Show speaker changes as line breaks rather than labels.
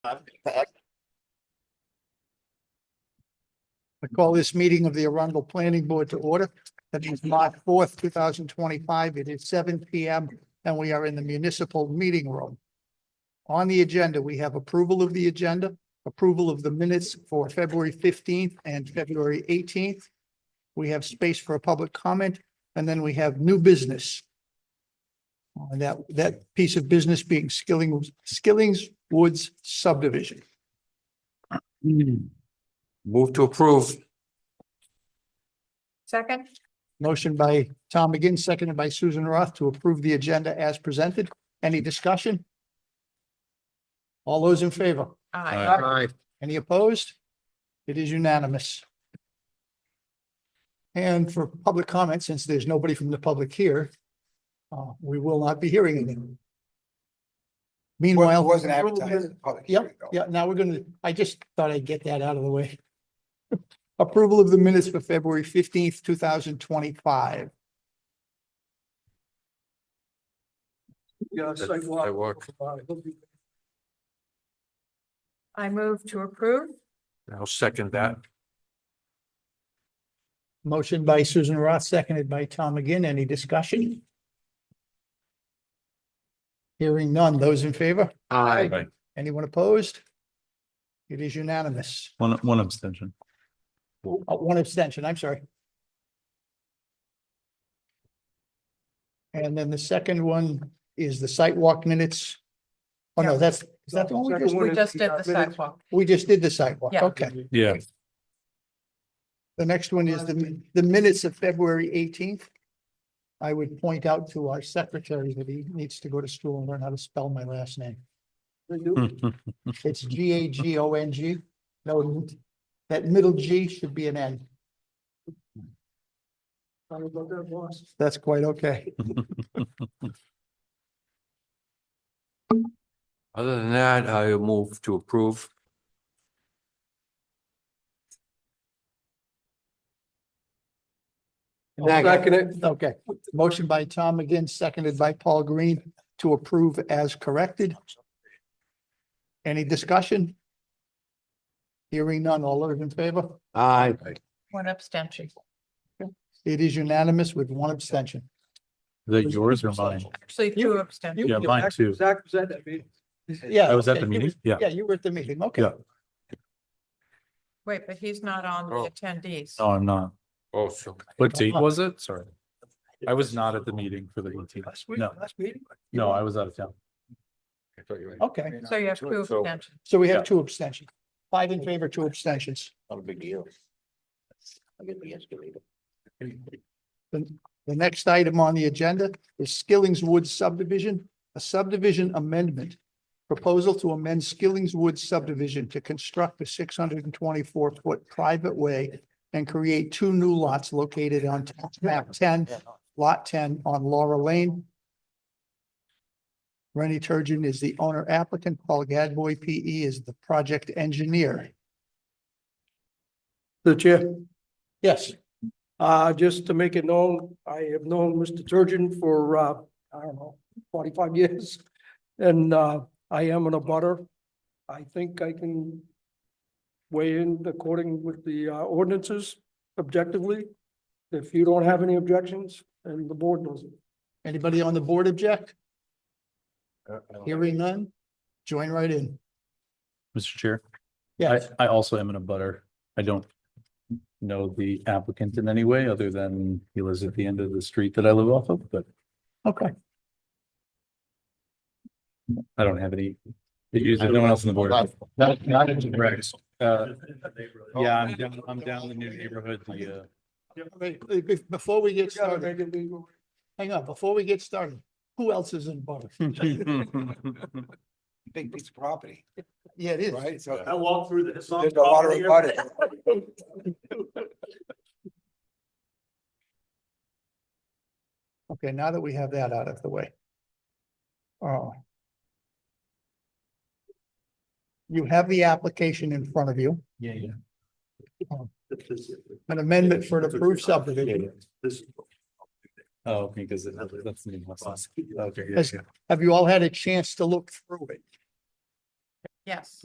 I call this meeting of the Arundel Planning Board to order. That is March fourth, two thousand twenty-five. It is seven P M and we are in the municipal meeting room. On the agenda, we have approval of the agenda, approval of the minutes for February fifteenth and February eighteenth. We have space for a public comment and then we have new business. Uh, that, that piece of business being Skilling, Skilling's Woods subdivision.
Move to approve.
Second?
Motion by Tom McGinn, seconded by Susan Roth to approve the agenda as presented. Any discussion? All those in favor? Any opposed? It is unanimous. And for public comment, since there's nobody from the public here, uh, we will not be hearing anything. Meanwhile.
Well, it wasn't advertised. as a public hearing,
Yep,
though.
yeah, now we're gonna, I just thought I'd get that out of the way. Approval of the minutes for February fifteenth, two thousand twenty-five.
That's Sidewalk.
I move to approve.
I'll second that.
Motion by Susan Roth, seconded by Tom McGinn. Any discussion? Hearing none. Those in favor?
Aye.
Anyone opposed? It is unanimous.
One, one abstention.
Uh, One abstention, I'm sorry. And then the second one is the site walk minutes. Oh, no, that's, is that the one we just,
We just did the sidewalk.
we just did the site walk?
Yeah.
Okay.
Yeah.
The next one is the, the minutes of February eighteenth. I would point out to our secretary that he needs to go to school and learn how to spell my last name. It's G A G O N G. No, that middle G should be an N. That's quite okay.
Other than that, I move to approve.
Okay. Motion by Tom again, seconded by Paul Green to approve as corrected. Any discussion? Hearing none. All those in favor?
Aye.
One abstention.
It is unanimous with one abstention.
That yours or mine?
Actually, two abstentions.
Yeah, mine too.
Zach was at that meeting.
Yeah.
I was at the
okay.
meeting. Yeah.
Yeah, you were at the meeting. Okay.
Yeah.
Wait, but he's not on
Oh.
the attendees.
No, I'm not.
Oh, so.
What date was it? Sorry. I was not at the meeting for the eighteenth.
Last week,
No.
last meeting.
No, I was out of town.
I thought you were-
Okay.
So you have two
So-
abstentions.
So we have
Yeah.
two abstentions. Five in favor, two abstentions.
Not a big deal. I get the
The next item on the agenda is Skilling's Woods subdivision, a subdivision amendment. Proposal to amend Skilling's Woods subdivision to construct a six hundred and twenty-four foot private way and create two new lots located on tax map ten, lot ten on Laura Lane. Rennie Turgeon is the owner applicant, Paul Gadboy, P E, is the project engineer.
The chair,
Yes,
uh, just to make it known, I have known Mr. Turgeon for, uh, I don't know, forty-five years. And, uh, I am an abutter. I think I can weigh in according with the uh, ordinances objectively. If you don't have any objections and the board doesn't.
anybody on the board object?
Uh, I don't-
Hearing none? Join right in.
Mr. Chair, I,
Yes.
I also am in a butter. I don't know the applicant in any way other than he lives at the end of the street that I live off of, but
Okay.
I don't have any issues with no one else on the board. Not, not in direct. Uh, yeah, I'm down, I'm down the new neighborhood, the, uh,
Wait, wait, be- Before we get
You gotta
started,
make it legal.
hang on, before we get started, who else is in butter?
uh,
Big piece of property,
Yeah, it is.
right? So
I walked through this.
there's a lot of abutters.
Okay, now that we have that out of the way. Oh. You have the application in front of you,
Yeah, yeah.
an amendment for an approved subdivision.
This.
Oh, okay, because that's the name of my son. Okay, yeah,
Has-
yeah.
Have you all had a chance to look through it?
Yes.